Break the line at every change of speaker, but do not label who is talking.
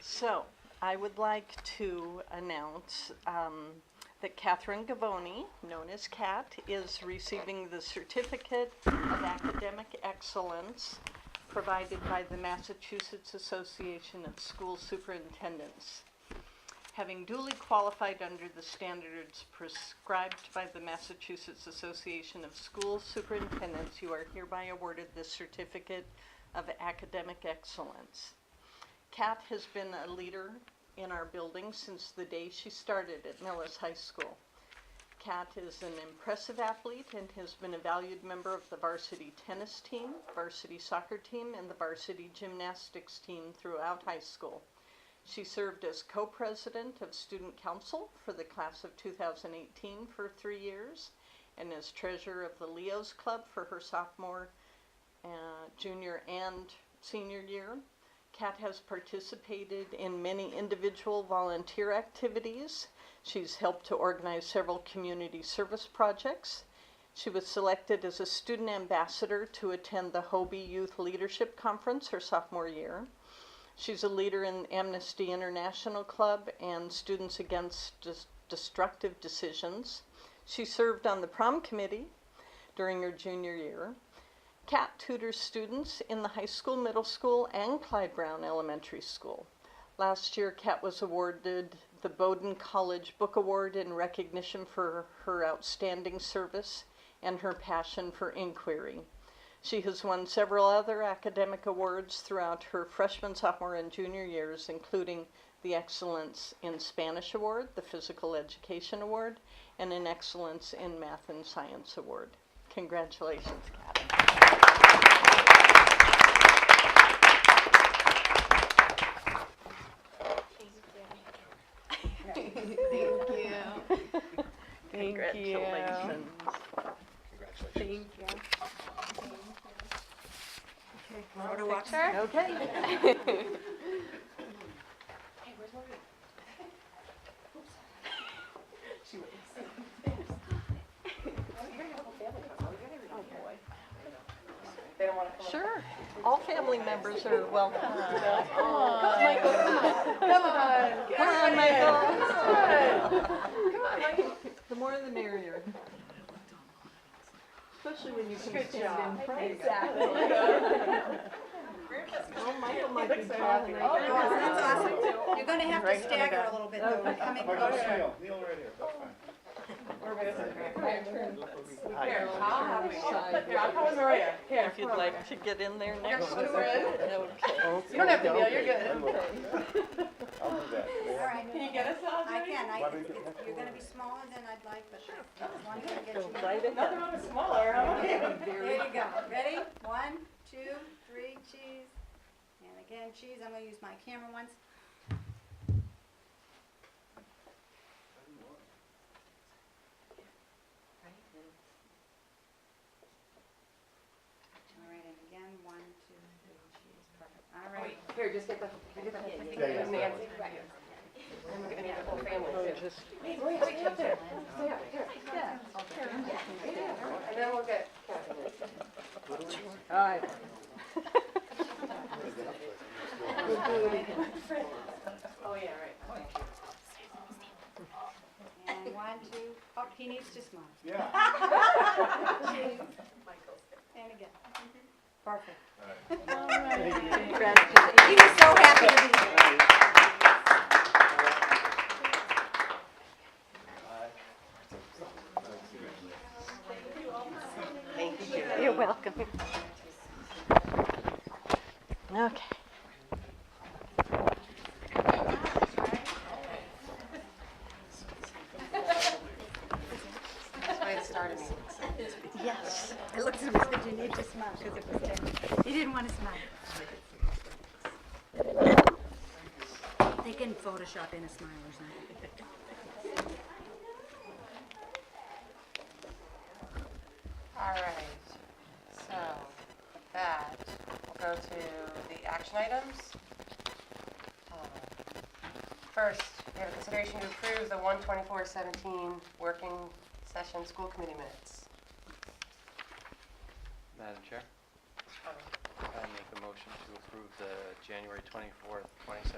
So, I would like to announce um, that Catherine Gavoni, known as Cat, is receiving the Certificate of Academic Excellence provided by the Massachusetts Association of School Superintendents. Having duly qualified under the standards prescribed by the Massachusetts Association of School Superintendents, you are hereby awarded the Certificate of Academic Excellence. Kat has been a leader in our building since the day she started at Millis High School. Kat is an impressive athlete and has been a valued member of the varsity tennis team, varsity soccer team, and the varsity gymnastics team throughout high school. She served as co-president of student council for the class of 2018 for three years and as treasurer of the Leos Club for her sophomore, uh, junior, and senior year. Kat has participated in many individual volunteer activities. She's helped to organize several community service projects. She was selected as a student ambassador to attend the Hobie Youth Leadership Conference her sophomore year. She's a leader in Amnesty International Club and Students Against Des- Destructive Decisions. She served on the prom committee during her junior year. Cat tutors students in the high school, middle school, and Clyde Brown Elementary School. Last year, Cat was awarded the Bowdoin College Book Award in recognition for her outstanding service and her passion for inquiry. She has won several other academic awards throughout her freshman, sophomore, and junior years, including the Excellence in Spanish Award, the Physical Education Award, and an Excellence in Math and Science Award. Congratulations, Kat.
Thank you. Thank you.
Congratulations.
Thank you.
Wanna watch
Okay.
Hey, where's Maureen? She went. Oh, you're gonna have a family come, oh, you're gonna be here. They don't wanna come.
Sure. All family members are welcome. Come on,
Michael,
Michael.
Come on.
Come on, Michael.
Come on, Michael.
The more the merrier. Especially when you can stand in front.
Exactly.
Oh, Michael might be
happy.
talking.
Oh,
no, that's awesome.
You're gonna have to stagger a little bit though, we're coming
Michael,
closer.
Neil, Neil right here, that's fine.
Here,
I'll have it.
Here, I'll come with Maria. Here.
If you'd like to get in there
Here,
next.
come with Maria.
Okay.
You don't have to kneel, you're good.
I'll do that.
Alright,
Can you get us all,
I
Jody?
can, I,
Why don't you
it's-
get next
you're
one?
gonna be smaller than I'd like, but I just wanted to get
Go
you.
right
Nothing
ahead.
wrong with smaller, huh?
There you go, ready? One, two, three, cheese. And again, cheese, I'm gonna use my camera once. Alright, and again, one, two, three, cheese, perfect, alright.
Here, just get the, get
Yeah, yeah.
the. Nancy. And we're gonna need the whole family too.
Just
Wait, wait, stay up there. Stay up, here. And then we'll get.
Aye.
Oh, yeah, right.
And one, two, oh, he needs to smile.
Yeah.
And again. Perfect.
Congratulations.
He was so happy to be here.
You're welcome. Okay.
Yes. I looked at him and said, you need to smile, because it was there. He didn't want to smile. They can Photoshop in a smile or something.
All right, so that will go to the action items. Uh, First, we have a consideration to approve the 124-17 working session school committee minutes.
Madam Chair, I make a motion to approve the January 24th, 2017